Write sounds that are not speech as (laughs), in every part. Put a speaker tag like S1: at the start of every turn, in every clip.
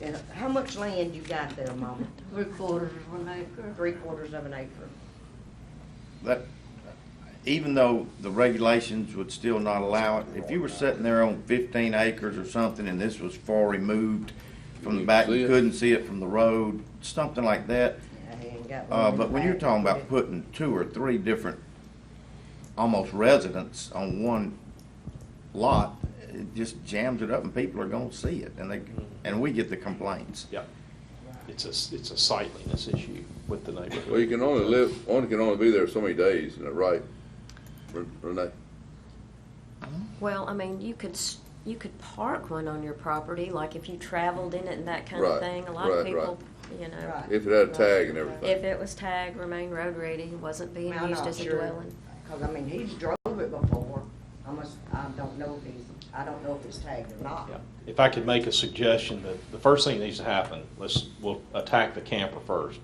S1: Yeah, How much land you got there, Mama?
S2: Three quarters of an acre.
S1: Three quarters of an acre.
S3: That, even though the regulations would still not allow it, if you were sitting there on fifteen acres or something and this was far removed from the back, you couldn't see it from the road, something like that.
S1: Yeah, he ain't got
S3: Uh,
S1: land
S3: but when you're
S1: back.
S3: talking about putting two or three different, almost residents on one lot, it just jams it up and people are gonna see it and they, and we get the complaints.
S4: Yeah, it's a, it's a sightliness issue with the neighborhood.
S5: Well, you can only live, one can only be there so many days, isn't that right? Re- Renee?
S6: Well, I mean, you could, s- you could park one on your property, like if you traveled in it and that kind
S5: Right,
S6: of thing. A lot of
S5: right,
S6: people, you know,
S1: Right.
S5: If it had a tag and
S6: if
S5: everything.
S6: it was tagged, remained road ready, wasn't being
S1: Well, I'm
S6: used
S1: not
S6: as a
S1: sure,
S6: dwelling.
S1: Cause I mean, he's drove it before. I must, I don't know if he's, I don't know if it's tagged or not.
S4: Yeah. If I could make a suggestion, that the first thing that needs to happen, let's, we'll attack the camper first.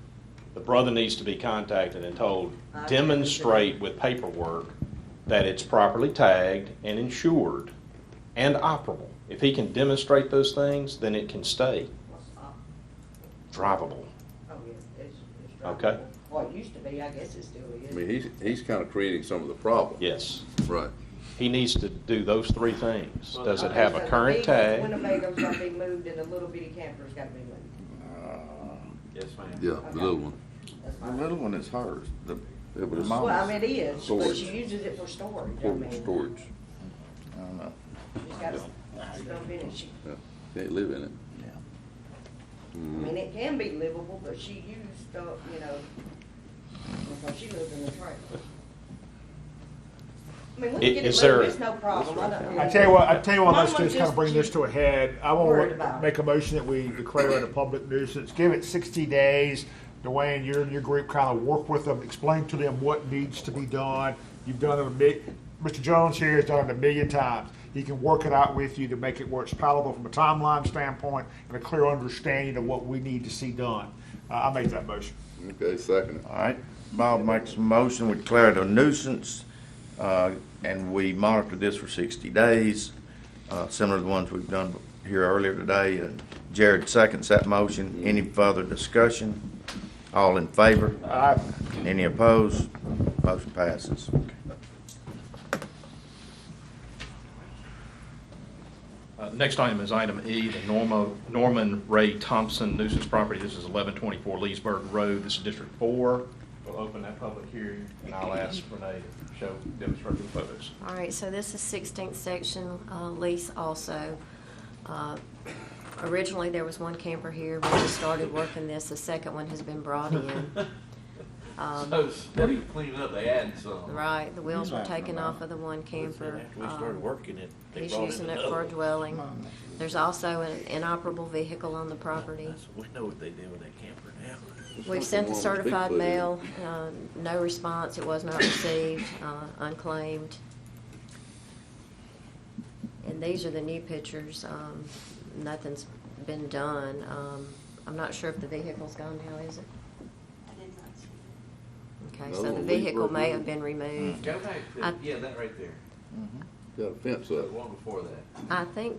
S4: The brother needs to be contacted and told,
S1: I agree.
S4: demonstrate with paperwork that it's properly tagged and insured and operable. If he can demonstrate those things, then it can stay
S1: What's up?
S4: drivable.
S1: Oh, yeah, it's, it's drivable.
S4: Okay.
S1: Well, it used to be, I guess it still
S5: I
S1: is.
S5: mean, he's, he's kind of creating some of the problem.
S4: Yes.
S5: Right.
S4: He needs to do those three things. Does it
S1: Okay,
S4: have
S1: so
S4: a
S1: the
S4: current
S1: big
S4: tag?
S1: Winnebago's gotta be moved and the little bitty camper's gotta be moved.
S4: Yes, ma'am.
S5: Yeah, the little one.
S1: That's
S3: The
S1: fine.
S3: little one is hers, the,
S5: Yeah, but
S3: the
S5: it's-
S3: mama's.
S1: Well, I mean, it is, but
S5: Storage.
S1: she uses it for storage. I
S5: For
S1: mean,
S5: storage.
S3: I don't know.
S1: She's got stuff in it. She,
S5: Yeah. Can't live in it.
S1: I mean, it can be livable, but she used stuff, you know, because she lived in the trailer. I mean, we
S4: I-
S1: can get
S4: is
S1: it
S4: there-
S1: moved, it's no problem. I don't.
S7: I tell you what, I tell you what, let's
S1: Mama
S7: just kind of bring this to a head. I
S1: worried about
S7: wanna
S1: it.
S7: make a motion that we declare it a public nuisance, give it sixty days. Dwayne, you and your group kind of work with them, explain to them what needs to be done. You've done it a mi, Mr. Jones here has done it a million times. He can work it out with you to make it where it's palatable from a timeline standpoint and a clear understanding of what we need to see done. Uh, I make that motion.
S5: Okay, second.
S3: All right, Bob makes a motion, we declare it a nuisance, uh, and we monitor this for sixty days, uh, similar to the ones we've done here earlier today. And Jared seconds that motion. Any further discussion? All in favor? Aye. Any opposed? Motion passes.
S8: Uh, Next item is item E, the Norma- Norman Ray Thompson nuisance property. This is 1124 Leesburg Road. This is District 4. We'll open that public hearing, and I'll ask Renee to show, demonstrate the photos.
S6: All right, so this is 16th section uh, lease also. Uh, Originally, there was one camper here. When we started working this, the second one has been
S1: (laughs)
S6: brought in. Um,
S9: So, what are you cleaning up? They adding some.
S6: Right, the wheels were
S3: Back in
S6: taken
S3: about-
S6: off of the one camper.
S9: After we started
S6: Um,
S9: working it, they
S6: He's
S9: brought in
S6: using it
S9: another
S6: for a
S9: one.
S6: dwelling. There's also an inoperable vehicle on the property.
S9: That's- We know what they did with that camper now.
S6: We've sent the
S5: Something wrong with
S6: certified
S5: Bigfoot, isn't it?
S6: mail, uh, no response, it was not received, uh, unclaimed. And these are the new pictures, um, nothing's been done. Um, I'm not sure if the vehicle's gone now, is it? Okay, so
S5: Another
S6: the
S5: one,
S6: vehicle
S5: Leesburg
S6: may
S5: Road.
S6: have been removed.
S9: Go back
S6: I-
S9: to, yeah, that right there.
S5: Got a fence
S9: The
S5: up.
S9: one before that.
S6: I think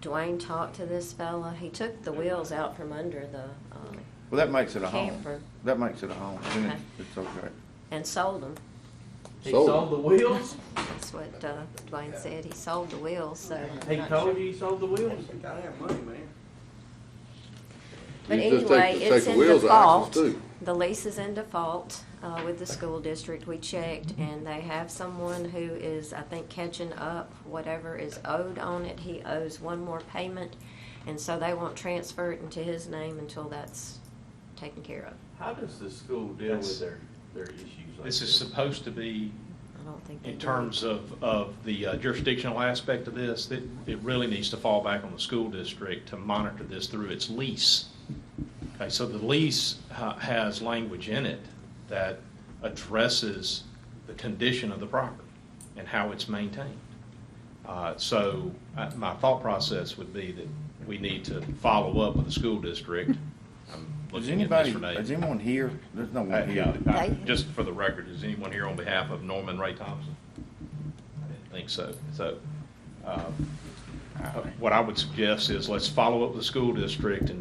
S6: Dwayne talked to this fella, he took the wheels out from under the, uh,
S3: Well, that makes it a home.
S6: Camper.
S3: That makes it a home. Then
S6: Okay.
S3: it's- It's okay.
S6: and sold them.
S9: He
S5: Sold.
S9: sold the wheels?
S6: That's what uh, Dwayne said, he sold the wheels, so. I'm
S9: He
S6: not
S9: told
S6: sure.
S9: you he sold the wheels?
S6: But
S5: You just take-
S6: anyway,
S5: take
S6: it's
S5: the
S6: in
S5: wheels out, it's
S6: default.
S5: too.
S6: The lease is in default uh, with the school district. We checked, and they have someone who is, I think, catching up whatever is owed on it. He owes one more payment, and so they won't transfer it into his name until that's taken care of.
S9: How does the school deal
S8: That's-
S9: with their, their issues like
S8: This is
S9: this?
S8: supposed to be
S6: I don't think. they
S8: in
S6: do.
S8: terms of, of the uh, jurisdictional aspect of this, that it really needs to fall back on the school district to monitor this through its lease. Okay, so the lease ha- has language in it that addresses the condition of the property and how it's maintained. Uh, So I- my thought process would be that we need to follow up with the school district. I'm
S3: Is
S8: looking at
S3: anybody,
S8: Ms.
S3: is
S8: Renee.
S3: anyone here? There's no
S8: Uh,
S3: one
S8: yeah,
S3: here.
S8: I-
S6: They-
S8: Just for the record, is anyone here on behalf of Norman Ray Thompson? I didn't think so. So, uh, uh, what I would suggest is let's follow up with the school district and